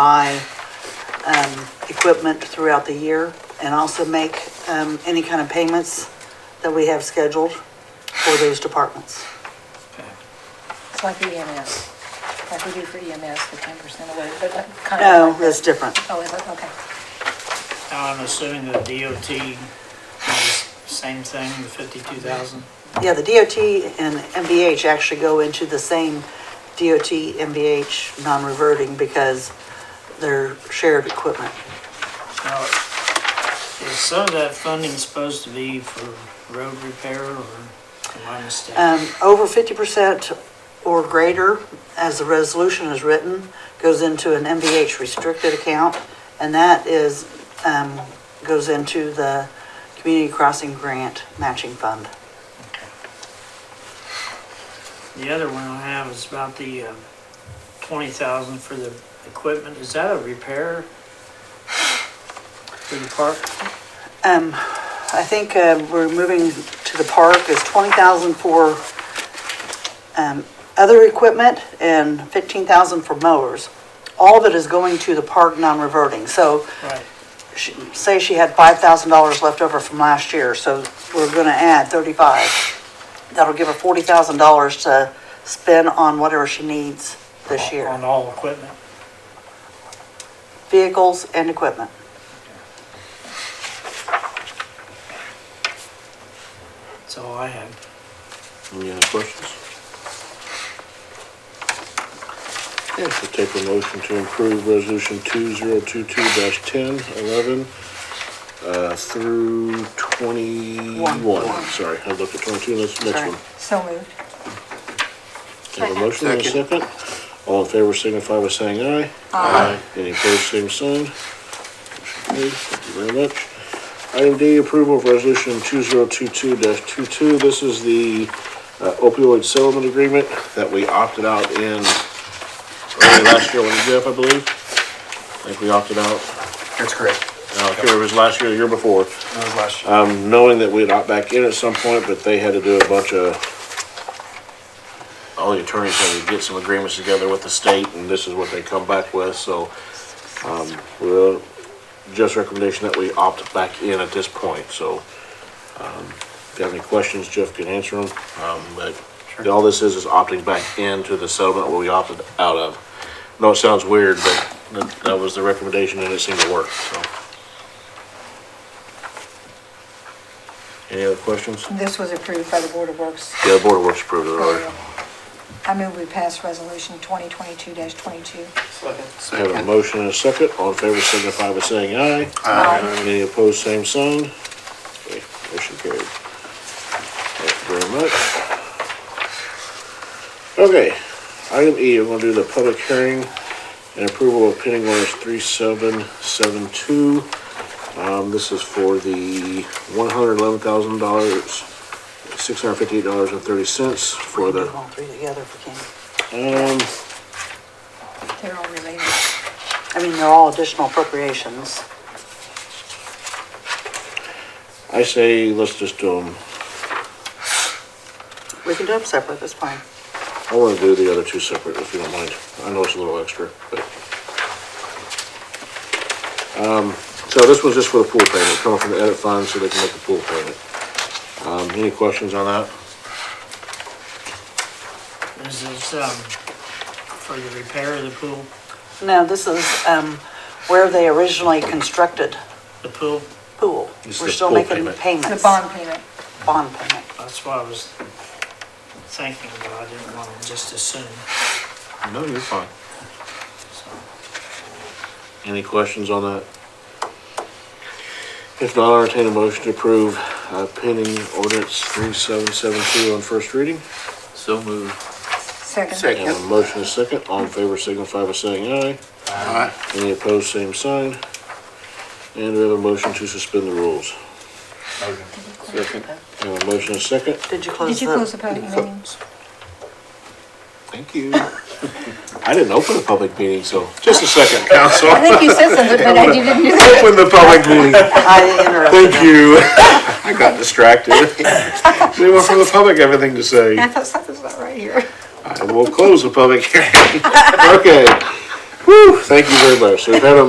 buy um, equipment throughout the year and also make um, any kind of payments that we have scheduled for those departments. It's like the EMS, like we do for EMS, the ten percent away, but like kind No, of. like that's that. different. Oh, is it, okay. Now, I'm assuming the DOT is same thing, the fifty-two thousand? Yeah, the DOT and MVH actually go into the same DOT, MVH, non-reverting because they're shared equipment. Now, is some of that funding supposed to be for road repair or am I mistaken? Um, over fifty percent or greater, as the resolution is written, goes into an MVH restricted account, and that is, um, goes into the Community Crossing Grant Matching Fund. The other one I have is about the uh, twenty thousand for the equipment. Is that a repair for the park? Um, I think, uh, we're moving to the park, it's twenty thousand for, um, other equipment and fifteen thousand for mowers. All of it is going to the park non-reverting, so Right. she- say she had five thousand dollars left over from last year, so we're gonna add thirty-five. That'll give her forty thousand dollars to spend on whatever she needs this On year, all equipment? vehicles and equipment. That's all I have. Any other questions? Yes, I'll take a motion to approve resolution two zero two two dash ten eleven, uh, through One. twenty-one. Sorry, I looked at twenty-two, that's the Sorry. next one. So moved. Have a motion and a second. All in favor signify by saying aye. Aye. Any opposed, same sign. Motion carried. Thank you very much. Item D, approval of resolution two zero two two 22 This is the uh, opioid settlement agreement that we opted out in early last year, wasn't it, Jeff, I believe? I think we opted out, That's correct. I don't care if it was last year or the year before That was last year. um, knowing that we'd opt back in at some point, but they had to do a bunch of, all the attorneys had to get some agreements together with the state, and this is what they come back with, so, um, we'll, just recommendation that we opt back in at this point, so, um, if you have any questions, Jeff can answer them, um, but all this is, is opting back into the settlement where we opted out of. No, it sounds weird, but that, that was the recommendation, and it seemed to work, so. Any other questions? This was approved by the Board of Works. Yeah, the Board of Works approved it already. I move we pass resolution twenty twenty-two twenty-two. I have a motion and a second. All in favor signify by saying aye. Aye. Any opposed, same sign. Okay, motion carried. Thank you very much. Okay, item E, I'm gonna do the public hearing and approval of pending orders three seven seven two. Um, this is for the one hundred eleven thousand dollars, six hundred fifty-eight dollars and thirty cents for We can the, do all three together if we can. um, They're all related. I mean, they're all additional appropriations. I say, let's just um, do them We can do them separate, that's fine. I want to do the other two separate, if you don't mind. I know it's a little extra, but. Um, So this was just for the pool payment, coming from the edit fund so they can make the pool payment. Um, Any questions on that? Is this, um, for the repair of the pool? No, this is, um, where they originally constructed The pool, pool. It's We're the still pool making payment. payments. The bond payment. Bond payment. that's what I was thinking, but I didn't want to just assume, No, you're fine. so. Any questions on that? If not, I'll entertain a motion to approve uh, pending ordinance 3772 on first reading. So moved. Second. I have a Motion is second. All in favor signify by saying aye. Aye. Any opposed, same sign. And we have a motion to suspend the rules. Second. We have a motion and a second. Did you close Did the? you close the public meeting? Thank you. I didn't open a public meeting, so just a second, council. I think you said something, but I didn't do that. Open the public meeting. I interrupted. Thank you. I got distracted. Anyone from the public have anything to say? I thought something was not right here. I will close the public hearing. Okay. Whew, thank you very much. So we've had a